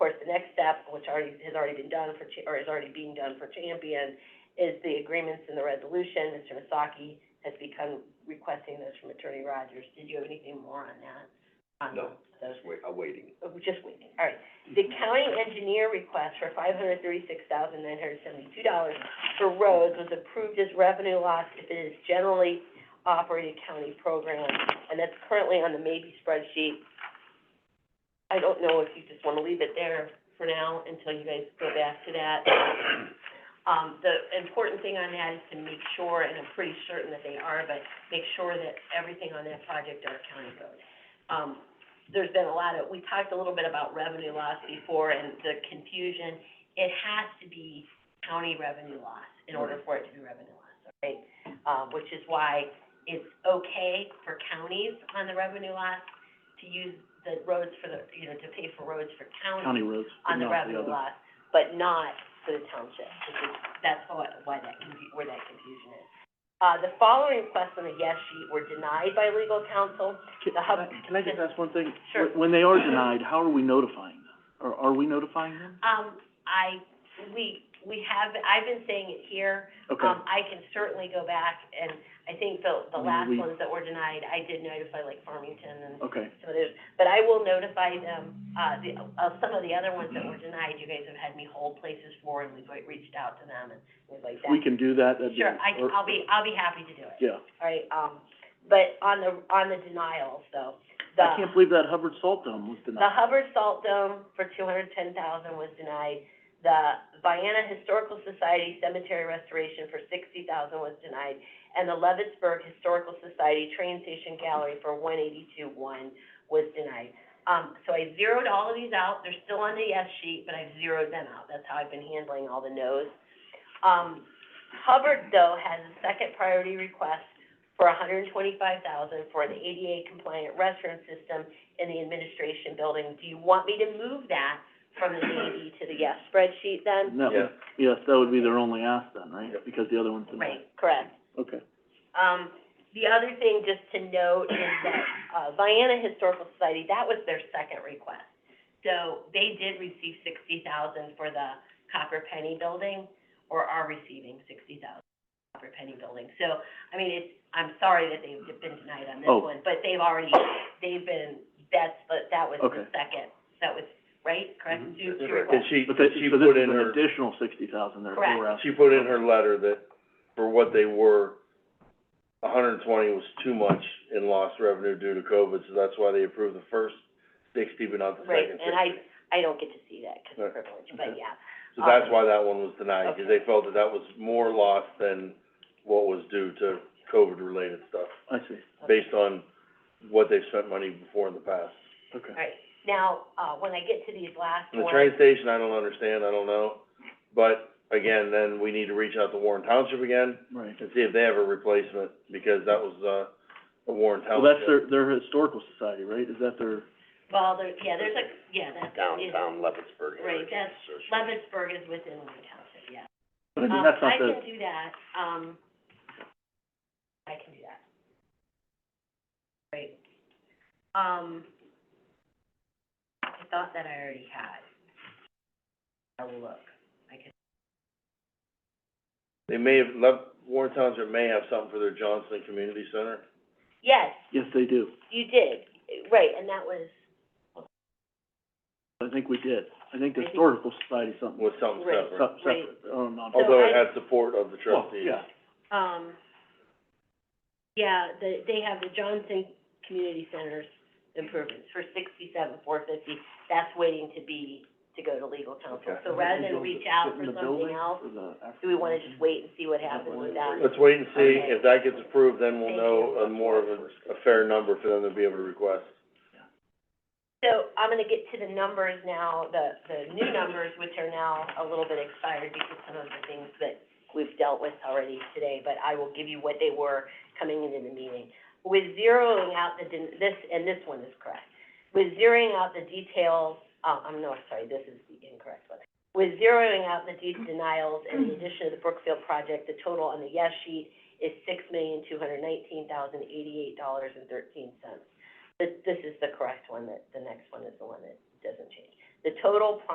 step, which already, has already been done for, Cha- or is already being done for Champion, is the agreements and the resolution. Mr. Masaki has become requesting those from Attorney Rogers. Did you have anything more on that? On No. those? Just wait, I'm waiting. Oh, Just waiting, all right. The county engineer request for five hundred thirty-six thousand nine hundred seventy-two dollars for roads was approved as revenue loss if it is generally operated county program, and that's currently on the maybe spreadsheet. I don't know if you just wanna leave it there for now until you guys go back to that. Um, the important thing on that is to make sure, and I'm pretty certain that they are, but make sure that everything on that project are county roads. Um, there's been a lot of, we talked a little bit about revenue loss before and the confusion. It has to be county revenue loss in order for it to be revenue loss, right? Uh, which is why it's okay for counties on the revenue loss to use the roads for the, you know, to pay for roads for county roads, but on the not the revenue other. loss, but not for the township, which is, that's why, why that confu- where that confusion is. Uh, the following requests on the yes sheet were denied by legal counsel. Can- the hub- can I- Can I just ask one thing? uh, Sure. When- When they are denied, how are we notifying them? Or are we notifying them? Um, I, we, we have, I've been saying it here. Okay, Um, I can certainly go back, and I think the, the I last mean, we- ones that were denied, I did notify like Farmington and okay, some of those. But I will notify them, uh, the, of some of the other ones that were denied, you guys have had me hold places for, and we've like, reached out to them and things like that. we can do that, that'd be. Sure, I, or- I'll be, I'll be happy to do it. Yeah, All right, um, but on the, on the denials, though, the. I can't believe that Hubbard Salt Dome was The denied. Hubbard Salt Dome for two hundred ten thousand was denied. The Vienna Historical Society Cemetery Restoration for sixty thousand was denied. And the Leavittsburg Historical Society Train Station Gallery for one eighty-two one was denied. Um, so I zeroed all of these out. They're still on the yes sheet, but I've zeroed them out. That's how I've been handling all the no's. Um, Hubbard, though, has a second priority request for $125,000 for an ADA compliant restroom system in the administration building. Do you want me to move that from the maybe to the yes spreadsheet then? And that would, yes, that would be their only ask then, right? Yep. Because the other one's denied. Right, correct. Okay, Um, the other thing just to note is that, uh, Vienna Historical Society, that was their second request. So they did receive sixty thousand for the Copper Penny Building, or are receiving sixty thousand for Copper Penny Building. So, I mean, it's, I'm sorry that they've been denied on this Oh. one, but they've already, they've been, that's, the- that was the Okay. second, that was, right, correct? Mm-hmm. Mhm. Two, two Correct. requests. And she, but they, she so this put is in an her, additional sixty thousand they're, Correct. they were asking. she put in her letter that for what they were, a hundred and twenty was too much in lost revenue due to COVID, so that's why they approved the first sixty, but not the Right, second sixty. and I, I don't get to see that because of Right. privilege, but Okay. yeah. So that's why that one was denied, because Okay. they felt that that was more lost than what was due to COVID-related stuff, I see, based on what they've spent money before in the past. okay. All right, now, uh, when I get to these last And ones. the train station, I don't understand, I don't know, but again, then we need to reach out to Warren Township again, Right. and see if they have a replacement, because that was, uh, a Warren Well, Township. that's their, their historical society, right? Is that their, Well, there, yeah, there's a, yeah, that's. is- Leavittsburg Right, that's, Leavittsburg is within Wayne Township, yeah. but I mean, Um, that's not I the, can do that, um, I can do that. Right. Um, I thought that I already had. I will look, I can, They may have, left, Warren Township may have something for their Johnson Community Center. yes, yes, they do. you did, right, and that was, I think we did. I think the I think- historical society something, was something Right. separate, se- separate, oh, non. So although it I- had support of the Well, trustees. yeah. um, yeah, the, they have the Johnson Community Centers improvements for sixty-seven, four fifty. That's waiting to be, to go to legal counsel. Okay. So rather than reach out for something else, do we wanna just wait and see what happens with that? Let's wait and see, Okay. if that gets approved, then we'll Thank know you. a more of a, a fair number for them to be able to request. So I'm gonna get to the numbers now, the, the new numbers, which are now a little bit expired because some of the things that we've dealt with already today, but I will give you what they were coming into the meeting. With zeroing out the, den- this, and this one is correct, with zeroing out the details, uh, I'm no, sorry, this is the incorrect one. With zeroing out the de- denials and the addition of the Brookfield project, the total on the yes sheet is six million, two hundred nineteen thousand, eighty-eight dollars and thirteen cents. This, this is the correct one, that, the next one is the one that doesn't change. The total pro-